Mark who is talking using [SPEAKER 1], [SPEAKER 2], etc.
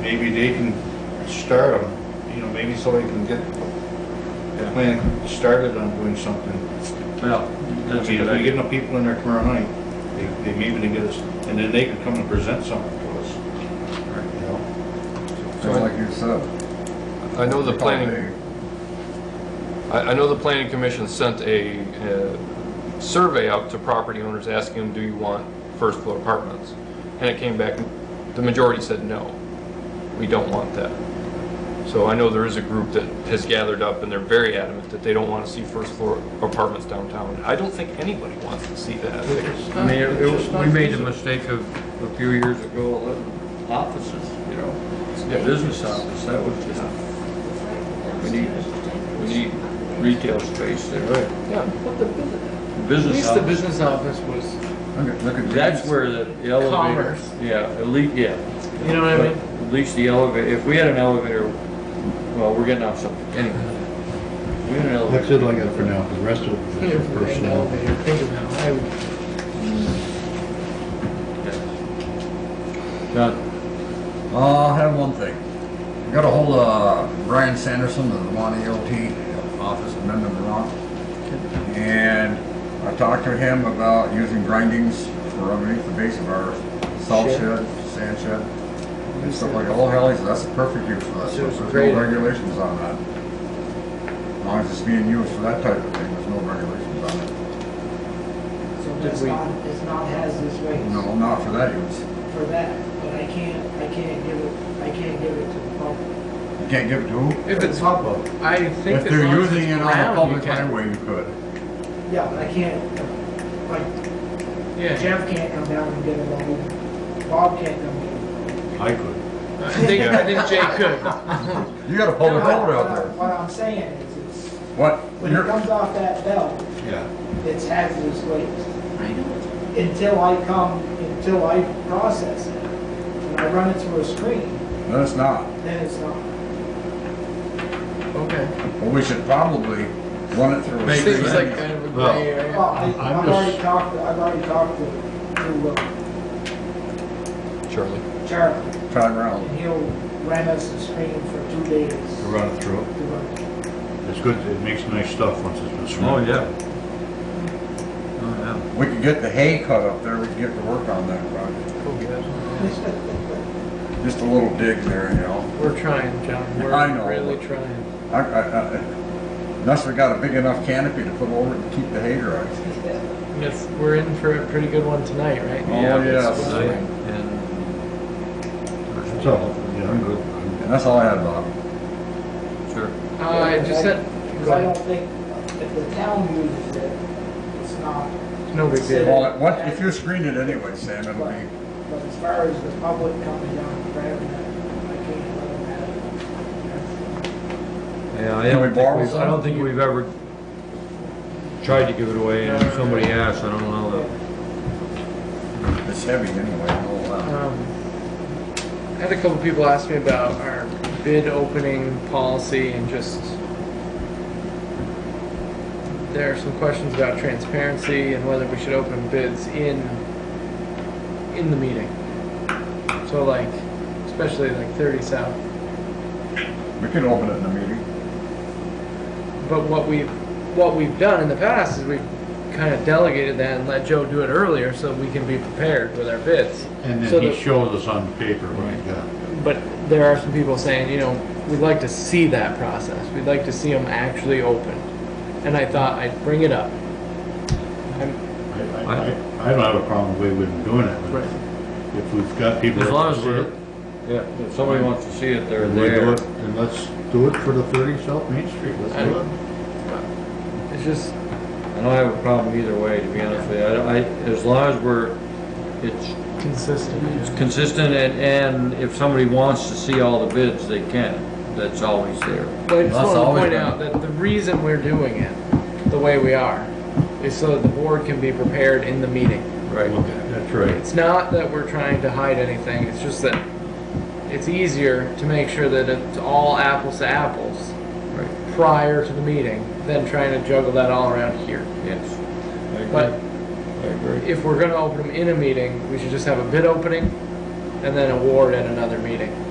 [SPEAKER 1] maybe they can start them, you know, maybe somebody can get the plan started on doing something.
[SPEAKER 2] Well,
[SPEAKER 1] I
[SPEAKER 2] that's a
[SPEAKER 1] mean,
[SPEAKER 2] good
[SPEAKER 1] if we get
[SPEAKER 2] idea.
[SPEAKER 1] enough people in there tomorrow night, they, they maybe they get us, and then they could come and present something to us, you know?
[SPEAKER 3] Just like you said.
[SPEAKER 4] I know the planning, I, I know the planning commission sent a, uh survey out to property owners asking them, do you want first floor apartments? And it came back, the majority said, no, we don't want that. So I know there is a group that has gathered up and they're very adamant that they don't want to see first floor apartments downtown. I don't think anybody wants to see that.
[SPEAKER 2] I mean, it- it- we made the mistake of, a few years ago, of offices, you know, the business office, that was just, we need, we need retail space there.
[SPEAKER 4] Yeah.
[SPEAKER 5] At
[SPEAKER 2] Business
[SPEAKER 5] least the
[SPEAKER 2] office,
[SPEAKER 5] business office was,
[SPEAKER 3] Look at
[SPEAKER 2] that's where the elevator,
[SPEAKER 5] Commerce.
[SPEAKER 2] yeah, elite, yeah.
[SPEAKER 5] you know what I mean?
[SPEAKER 2] At least the elevator, if we had an elevator, well, we're getting off something, anyway. If We had an elevator.
[SPEAKER 6] That's it I got for now, the rest of it is
[SPEAKER 5] If we had an
[SPEAKER 6] personnel.
[SPEAKER 5] elevator, think about it, I would-
[SPEAKER 2] Done.
[SPEAKER 3] Uh, I have one thing. I got a hold of Brian Sanderson of the Monty LT office in Mendon, Vermont. And I talked to him about using grindings for underneath the base of our salt shed, sand shed. And stuff like, oh hell, he said, that's a perfect use for that.
[SPEAKER 5] So it's
[SPEAKER 3] There's
[SPEAKER 5] great.
[SPEAKER 3] no regulations on that. As long as it's being used for that type of thing, there's no regulations on it.
[SPEAKER 7] So it's not, it's not hazardous waste
[SPEAKER 3] No, not for that use.
[SPEAKER 7] for that, but I can't, I can't give it, I can't give it to the public.
[SPEAKER 3] You can't give it to who?
[SPEAKER 5] If it's,
[SPEAKER 7] Public.
[SPEAKER 5] I
[SPEAKER 3] If
[SPEAKER 5] think as
[SPEAKER 3] they're
[SPEAKER 5] long as
[SPEAKER 3] using
[SPEAKER 5] it's
[SPEAKER 3] it on a
[SPEAKER 5] brown, you
[SPEAKER 3] public
[SPEAKER 5] can.
[SPEAKER 3] highway, you could.
[SPEAKER 7] Yeah, but I can't, uh, like
[SPEAKER 5] Yeah,
[SPEAKER 7] Jeff can't come down and get it all, Bob can't come get it.
[SPEAKER 1] I could.
[SPEAKER 5] I think, I think Jay could.
[SPEAKER 3] You got a public
[SPEAKER 7] No,
[SPEAKER 3] road
[SPEAKER 7] what
[SPEAKER 3] out
[SPEAKER 7] I-
[SPEAKER 3] there.
[SPEAKER 7] What I'm saying is, it's,
[SPEAKER 3] What?
[SPEAKER 7] when it
[SPEAKER 3] You're-
[SPEAKER 7] comes off that belt,
[SPEAKER 1] Yeah.
[SPEAKER 7] it's hazardous waste. Until I come, until I process it, and I run it through a screen,
[SPEAKER 3] No, it's not.
[SPEAKER 7] then it's not.
[SPEAKER 5] Okay.
[SPEAKER 3] Well, we should probably run it through. a
[SPEAKER 5] Seems
[SPEAKER 3] screen.
[SPEAKER 5] like kind of a
[SPEAKER 6] Well,
[SPEAKER 5] gray area.
[SPEAKER 7] Well, I-
[SPEAKER 6] I'm
[SPEAKER 7] I've
[SPEAKER 6] just-
[SPEAKER 7] already talked, I've already talked to, to uh,
[SPEAKER 4] Charlie?
[SPEAKER 7] Charlie,
[SPEAKER 3] Turn around.
[SPEAKER 7] and he'll rent us a screen for two days.
[SPEAKER 1] To run it through.
[SPEAKER 7] to run.
[SPEAKER 1] It's good, it makes nice stuff once it's been
[SPEAKER 2] Oh,
[SPEAKER 1] smoked.
[SPEAKER 2] yeah. Oh, yeah.
[SPEAKER 3] We could get the hay cut up there, we could get to work on that project.
[SPEAKER 5] Oh,
[SPEAKER 3] Just a little dig there, you know.
[SPEAKER 5] We're trying, John,
[SPEAKER 3] I know.
[SPEAKER 5] we're really trying.
[SPEAKER 3] I, I, I, unless we got a big enough canopy to put over it to keep the hay dry.
[SPEAKER 5] Yes, we're in for a pretty good one tonight, right?
[SPEAKER 3] Oh,
[SPEAKER 2] it's
[SPEAKER 3] yes.
[SPEAKER 2] tonight, And
[SPEAKER 1] So, yeah, I'm good. I'm-
[SPEAKER 3] And that's all I had, Bob.
[SPEAKER 2] sure.
[SPEAKER 5] Uh, I just said,
[SPEAKER 7] Because I don't think, if the town uses it, it's not,
[SPEAKER 5] no big deal.
[SPEAKER 3] Well, what, if you screen it anyway, Sam, it'll
[SPEAKER 7] but,
[SPEAKER 3] be,
[SPEAKER 7] but as far as the public coming down and grabbing it, I can't let them have it.
[SPEAKER 2] Yeah, I
[SPEAKER 3] Can we
[SPEAKER 2] don't think,
[SPEAKER 3] borrow
[SPEAKER 2] we've- I don't think we've ever tried to give it away and if somebody asked, I don't know that.
[SPEAKER 3] it's heavy anyway, it'll, uh,
[SPEAKER 5] Um, I had a couple people ask me about our bid opening policy and just, there are some questions about transparency and whether we should open bids in, in the meeting. So like, especially like thirty south,
[SPEAKER 3] we could open it in a meeting.
[SPEAKER 5] but what we've, what we've done in the past is we've kind of delegated that and let Joe do it earlier so we can be prepared with our bids.
[SPEAKER 6] And
[SPEAKER 5] So
[SPEAKER 6] then he
[SPEAKER 5] the-
[SPEAKER 6] shows us on paper, right, yeah.
[SPEAKER 5] But there are some people saying, you know, we'd like to see that process. We'd like to see them actually open. And I thought I'd bring it up. I'm,
[SPEAKER 6] I, I, I- I don't have a problem with we doing it, but if we've got people.
[SPEAKER 2] As long as
[SPEAKER 6] that
[SPEAKER 2] we're, yeah, if somebody wants to see it, they're
[SPEAKER 6] We'll do
[SPEAKER 2] there.
[SPEAKER 6] it, and let's do it for the thirty South Main Street, let's do it.
[SPEAKER 5] it's just,
[SPEAKER 2] I don't have a problem either way, to be honest with you. I, I, as long as we're, it's
[SPEAKER 5] consistent.
[SPEAKER 2] It's consistent and, and if somebody wants to see all the bids, they can. That's always there.
[SPEAKER 5] But I
[SPEAKER 3] That's
[SPEAKER 5] just want to
[SPEAKER 3] always
[SPEAKER 5] point
[SPEAKER 3] been-
[SPEAKER 5] out that the reason we're doing it the way we are is so that the board can be prepared in the meeting.
[SPEAKER 2] Right.
[SPEAKER 6] That's right.
[SPEAKER 5] It's not that we're trying to hide anything, it's just that it's easier to make sure that it's all apples to apples
[SPEAKER 2] Right,
[SPEAKER 5] prior to the meeting than trying to juggle that all around here.
[SPEAKER 2] yes. I agree.
[SPEAKER 5] But
[SPEAKER 2] I agree.
[SPEAKER 5] if we're gonna open them in a meeting, we should just have a bid opening and then award at another meeting.